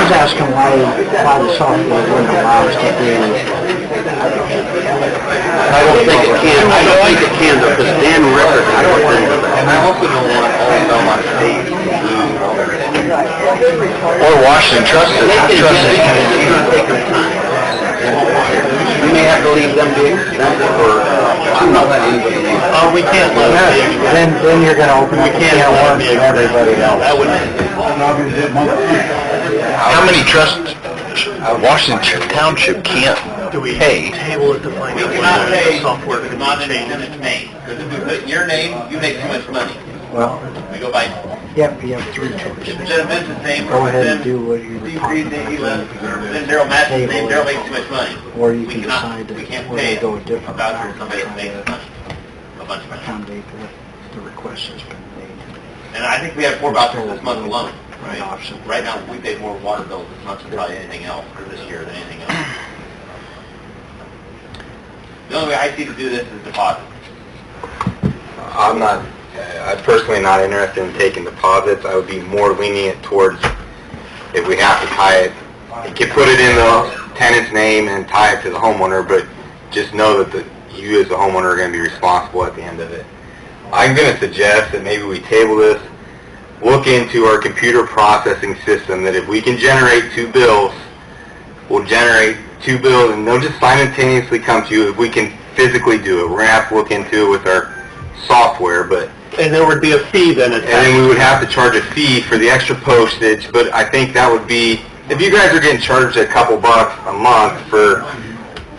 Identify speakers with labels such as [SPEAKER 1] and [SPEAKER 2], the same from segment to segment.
[SPEAKER 1] why, why the software wouldn't allow us to do.
[SPEAKER 2] I don't think it can, I don't think it can though, because Dan Rickard has agreed to that. And I also don't want all of Belmont State. Or Washington, trust us, trust us. We may have to leave them be, them uh, or, I'm not letting anybody leave. Oh, we can't let
[SPEAKER 1] Then, then you're gonna open up a can of worms for everybody else.
[SPEAKER 2] That would, how many trust, Washington Township can't pay?
[SPEAKER 1] Table it to find
[SPEAKER 3] We cannot pay for commodity in its name, because if we put in your name, you make too much money.
[SPEAKER 1] Well,
[SPEAKER 3] We go by,
[SPEAKER 1] yep, you have three
[SPEAKER 3] if
[SPEAKER 1] choices.
[SPEAKER 3] it's in a business name,
[SPEAKER 1] Go
[SPEAKER 3] or
[SPEAKER 1] ahead
[SPEAKER 3] if
[SPEAKER 1] and
[SPEAKER 3] it's
[SPEAKER 1] do
[SPEAKER 3] in
[SPEAKER 1] what you were
[SPEAKER 3] Steve
[SPEAKER 1] talking
[SPEAKER 3] Reed's name, he
[SPEAKER 1] about.
[SPEAKER 3] left, or if it's in Daryl Matt's name, Daryl makes too much money.
[SPEAKER 1] Or you can
[SPEAKER 3] We cannot-
[SPEAKER 1] decide that
[SPEAKER 3] we can't
[SPEAKER 1] we're gonna
[SPEAKER 3] pay
[SPEAKER 1] go a different
[SPEAKER 3] about
[SPEAKER 1] route.
[SPEAKER 3] Somebody that makes money, a bunch of money.
[SPEAKER 1] Accommodate that the request has been made.
[SPEAKER 3] And I think we had four vouchers this month alone.
[SPEAKER 1] Right option.
[SPEAKER 3] Right now, we paid more water bills this month than probably anything else, or this year than anything else. The only way I see to do this is deposit.
[SPEAKER 2] I'm not, I'm personally not interested in taking deposits. I would be more lenient towards if we have to tie it, you can put it in the tenant's name and tie it to the homeowner, but just know that the, you as the homeowner are gonna be responsible at the end of it. I'm gonna suggest that maybe we table this, look into our computer processing system, that if we can generate two bills, we'll generate two bills and they'll just simultaneously come to you if we can physically do it. We're gonna have to look into it with our software, but
[SPEAKER 3] And there would be a fee then attached.
[SPEAKER 2] and then we would have to charge a fee for the extra postage, but I think that would be, if you guys are getting charged a couple bucks a month for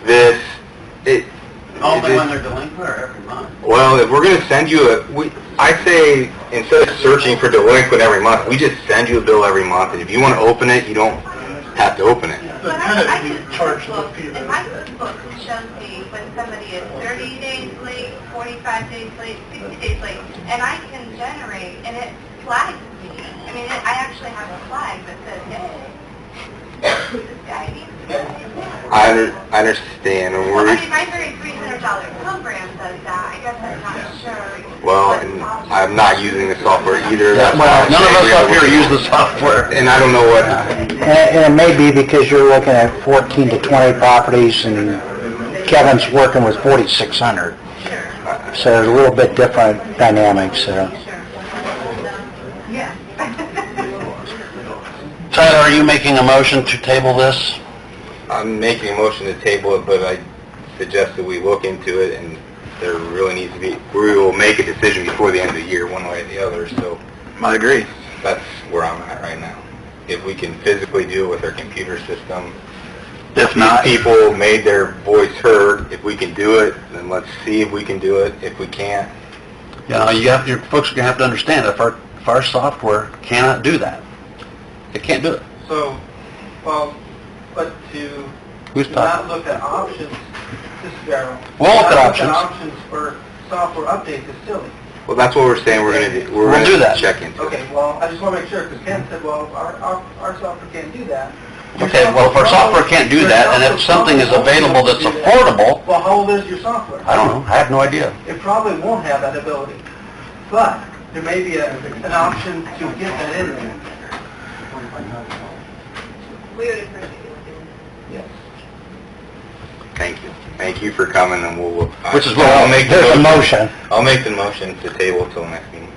[SPEAKER 2] this, it... it-
[SPEAKER 3] they're delinquent or every month?
[SPEAKER 2] Well, if we're gonna send you a, we, I say, instead of searching for delinquent every month, we just send you a bill every month, and if you wanna open it, you don't have to open it.
[SPEAKER 4] But I I can charge the fee. And my cookbook shows me when somebody is 30 days late, 45 days late, 60 days late, and I can generate, and it flags me. I mean, it- I actually have a flag that says, hey, this guy needs to pay.
[SPEAKER 2] I under, I understand, and
[SPEAKER 4] Well,
[SPEAKER 2] we're,
[SPEAKER 4] I mean, my very $300 program does that, I guess I'm not sure.
[SPEAKER 2] well,
[SPEAKER 4] what
[SPEAKER 2] and
[SPEAKER 4] policy-
[SPEAKER 2] I'm not using the software either, that's why
[SPEAKER 1] Well,
[SPEAKER 2] I'm
[SPEAKER 1] none of
[SPEAKER 2] saying
[SPEAKER 1] us
[SPEAKER 2] we gotta
[SPEAKER 1] up here
[SPEAKER 2] look-
[SPEAKER 1] use the software.
[SPEAKER 2] And I don't know what,
[SPEAKER 1] And and it may be because you're looking at 14 to 20 properties, and Kevin's working with 4,600. So it's a little bit different dynamics there.
[SPEAKER 4] Yeah.
[SPEAKER 1] Tyler, are you making a motion to table this?
[SPEAKER 2] I'm making a motion to table it, but I suggest that we look into it, and there really needs to be, we will make a decision before the end of the year, one way or the other, so
[SPEAKER 1] I agree.
[SPEAKER 2] that's where I'm at right now. If we can physically do it with our computer system.
[SPEAKER 1] If
[SPEAKER 2] These people made their voice heard, if we can do it, then let's see if we can do it, if we can't.
[SPEAKER 1] you know, you have, your folks are gonna have to understand, if our, if our software cannot do that, it can't do it.
[SPEAKER 5] So, well, but to
[SPEAKER 1] Who's
[SPEAKER 5] to
[SPEAKER 1] talking?
[SPEAKER 5] not look at options, this is Daryl.
[SPEAKER 1] We'll look
[SPEAKER 5] To
[SPEAKER 1] at
[SPEAKER 5] not
[SPEAKER 1] options.
[SPEAKER 5] options for software updates is silly.
[SPEAKER 2] Well, that's what we're saying, we're gonna, do. we're
[SPEAKER 1] We'll do
[SPEAKER 2] gonna
[SPEAKER 1] that.
[SPEAKER 2] check into it.
[SPEAKER 5] Okay, well, I just want to make sure, because Ken said, well, our, our, our software can't do that. Your
[SPEAKER 1] Okay, well, if our software can't do that, and if something is available that's affordable,
[SPEAKER 5] Well, how old is your software?
[SPEAKER 1] I don't know, I have no idea.
[SPEAKER 5] It probably won't have that ability, but there may be a, an option to get that in there.
[SPEAKER 4] We would appreciate it.
[SPEAKER 2] Thank you. Thank you for coming, and we'll...
[SPEAKER 1] Which is what,
[SPEAKER 2] I'll make the
[SPEAKER 1] there's a motion.
[SPEAKER 2] I'll make the motion to table till next meeting.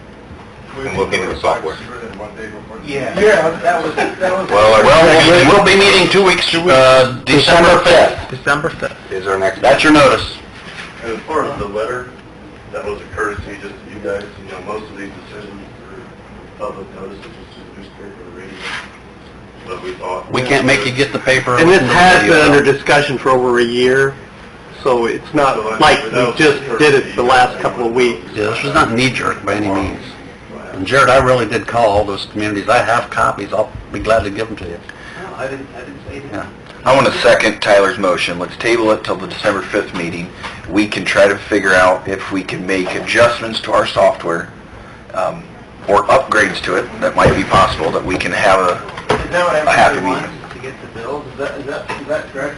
[SPEAKER 2] And look into the software.
[SPEAKER 5] Yeah. Yeah, that was, that was.
[SPEAKER 1] Well, we'll be meeting two weeks, uh, December 5th. December 5th.
[SPEAKER 2] Is our next...
[SPEAKER 1] That's your notice.
[SPEAKER 6] And as far as the letter, that was a courtesy just to you guys, you know, most of these decisions are public notice, it's just a newspaper radio. But we thought...
[SPEAKER 1] We can't make you get the paper.
[SPEAKER 7] And this has been under discussion for over a year, so it's not like we just did it the last couple of weeks.
[SPEAKER 1] Yeah, this was not knee-jerk by any means. And Jared, I really did call all those communities, I have copies, I'll be glad to give them to you.
[SPEAKER 5] I didn't, I didn't say that.
[SPEAKER 1] Yeah.
[SPEAKER 2] I want to second Tyler's motion. Let's table it till the December 5th meeting. We can try to figure out if we can make adjustments to our software um, or upgrades to it that might be possible, that we can have a
[SPEAKER 5] Is that what
[SPEAKER 2] I have
[SPEAKER 5] everybody
[SPEAKER 2] to meet.
[SPEAKER 5] wants, is to get the bills? Is that, is that, is that correct?